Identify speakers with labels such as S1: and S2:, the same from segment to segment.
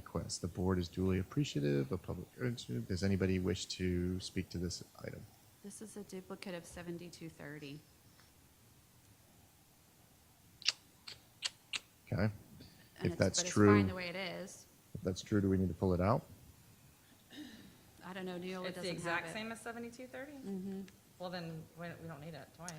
S1: comments. The board is duly appreciative of public interest. Does anybody wish to speak to this item?
S2: This is a duplicate of 7230.
S1: Okay.
S2: and
S1: If
S2: it's-
S1: that's
S2: But it's
S1: true,
S2: fine the way it is.
S1: if that's true, do we need to pull it out?
S2: I don't know, Neola
S3: It's the
S2: doesn't have
S3: exact
S2: it. Mm-hmm.
S3: same as seventy-two thirty? Well, then, we we don't need it twice.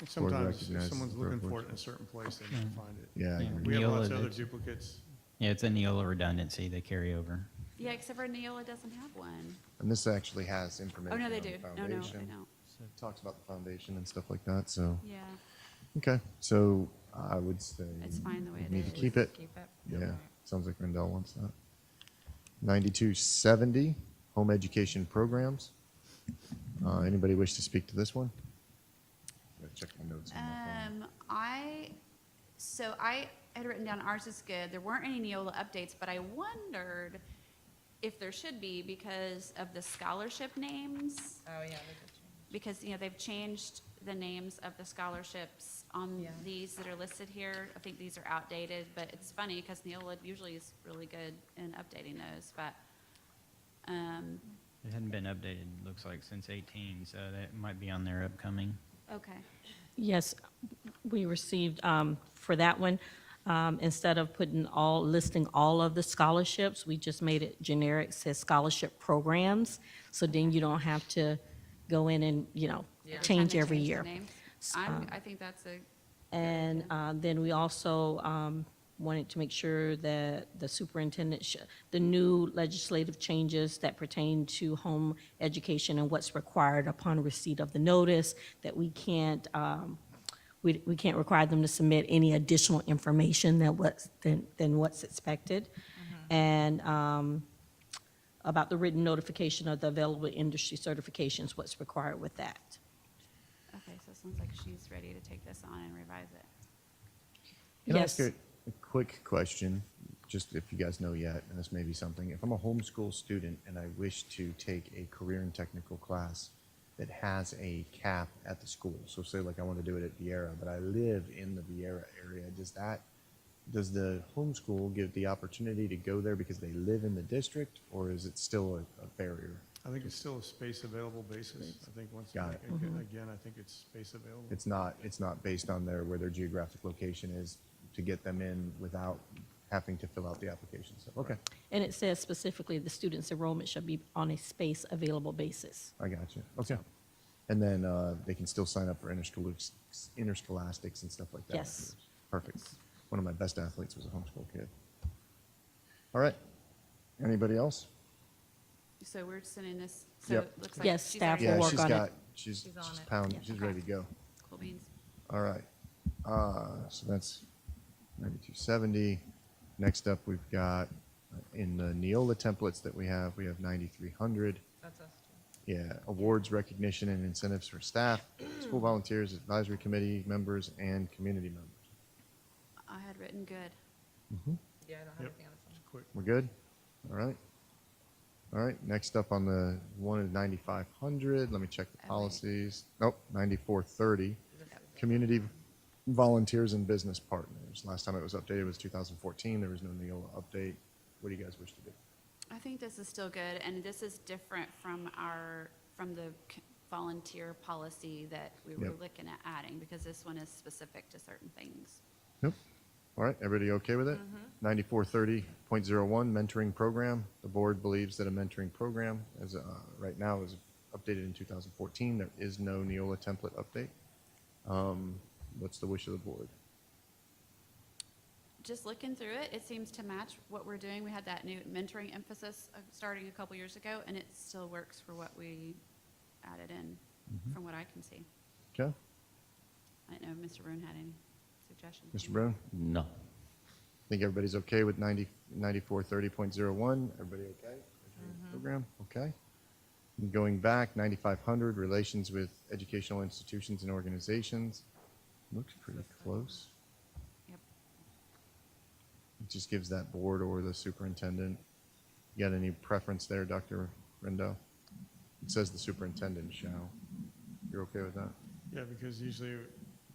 S4: And Sometimes if
S1: recognizes
S4: someone's
S1: the
S4: looking
S1: privilege.
S4: for it in a certain place, they might find it.
S1: Yeah. I
S5: Yeah.
S1: agree.
S4: We have lots of
S5: Neola
S4: other
S5: did.
S4: duplicates.
S5: Yeah, it's a Neola redundancy, they carry over.
S2: Yeah, except for Neola doesn't have one.
S1: And this actually has information
S2: Oh, no,
S1: on
S2: they
S1: the
S2: do.
S1: foundation.
S2: No, no, they don't.
S1: It Talks about the foundation and stuff like that, so,
S2: Yeah,
S1: okay. So I would say.
S2: it's fine the way it
S1: Need to
S2: is.
S1: keep it.
S3: Keep it.
S1: Yeah, sounds like Rendell wants that. Ninety-two seventy, home education programs. Uh, anybody wish to speak to this one? Gotta Check my notes. on my phone.
S2: Um, I, so I had written down ours is good. There weren't any Neola updates, but I wondered if there should be because of the scholarship names.
S3: Oh, yeah, they did change.
S2: because, you know, they've changed the names of the scholarships on
S3: Yeah.
S2: these that are listed here. I think these are outdated, but it's funny because Neola usually is really good in updating those, but, um,
S5: It hadn't been updated, looks like, since 18, so that might be on their upcoming.
S2: okay.
S6: Yes, we received, um, for that one, um, instead of putting all, listing all of the scholarships, we just made it generic, says scholarship programs. So then you don't have to go in and, you know,
S3: Yeah.
S2: Every time
S6: change
S2: they
S6: every
S2: the
S6: year.
S2: names.
S6: S- um,
S2: I'm, I think that's a,
S6: And uh, then we also um, wanted to make sure that the superintendent, sh- the new legislative changes that pertain to home education and what's required upon receipt of the notice, that we can't, um, we we can't require them to submit any additional information than what's, than than what's expected. And um, about the written notification of the available industry certifications, what's required with that.
S2: okay, so it sounds like she's ready to take this on and revise it.
S1: Can I ask
S6: Yes.
S1: a a quick question, just if you guys know yet, and this may be something, if I'm a homeschool student and I wish to take a career and technical class that has a cap at the school, so say like I want to do it at Vieira, but I live in the Vieira area, does that, does the homeschool give the opportunity to go there because they live in the district, or is it still a, a barrier?
S4: I think it's still a space available basis. I think once,
S1: Got it.
S5: Mm-hmm.
S4: again, again, I think it's space available.
S1: It's not, it's not based on their, where their geographic location is to get them in without having to fill out the application, so, okay,
S6: And it says specifically, the student's enrollment should be on a space available basis.
S1: I got you. Okay. And then uh, they can still sign up for interschol- interscholastics and stuff like that.
S6: Yes.
S1: afterwards. Perfect. One of my best athletes was a homeschool kid. All right. Anybody else?
S2: So we're sending this, so
S1: Yep.
S2: it looks like.
S6: Yes,
S2: she's
S6: staff
S2: already-
S6: will
S1: yeah,
S6: work
S1: she's
S6: on it.
S1: got, she's,
S3: She's on
S1: she's
S3: it.
S1: pounding,
S6: Yeah.
S1: she's ready to go.
S2: Cool beans.
S1: All right. Uh, so that's 9270. Next up, we've got uh, in the Neola templates that we have, we have 9300.
S3: That's us. too.
S1: Yeah, awards, recognition, and incentives for staff, school volunteers, advisory committee members, and community members.
S2: I had written good.
S3: Yeah, I don't have
S4: Yep,
S3: anything on this
S4: it's quick.
S1: We're good? All right. All right, next up on the one of 9,500, let me check the
S2: wait.
S1: policies. Nope, 9430,
S3: one.
S1: community volunteers and business partners. Last time it was updated was 2014, there was no Neola update. What do you guys wish to do?
S2: I think this is still good, and this is different from our, from the c- volunteer policy that we were
S1: Yep.
S2: looking at adding, because this one is specific to certain things.
S1: Nope. All right, everybody okay with it? 9430.01 mentoring program. The board believes that a mentoring program as, uh, right now is updated in 2014. There is no Neola template update. Um, What's the wish of the board?
S2: Just looking through it, it seems to match what we're doing. We had that new mentoring emphasis uh, starting a couple years ago, and it still works for what we added in, from what I can see.
S1: Okay,
S2: I don't know if Mr. Brune had any suggestions.
S1: Mr. Brown?
S7: No.
S1: I think everybody's okay with 90, 9430.01. Everybody okay? Program, okay. And Going back, 9500, relations with educational institutions and organizations. Looks pretty close.
S2: Yep.
S1: It just gives that board or the superintendent. You got any preference there, Dr. Rendell? It says the superintendent shall. You're okay with that?
S4: Yeah, because usually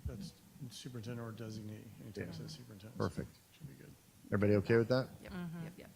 S4: that's superintendent or designee, anytime it
S1: Yeah.
S4: says superintendent. so
S1: Perfect.
S4: Should be good.
S1: Everybody okay with that?
S2: Yep, yep, yep.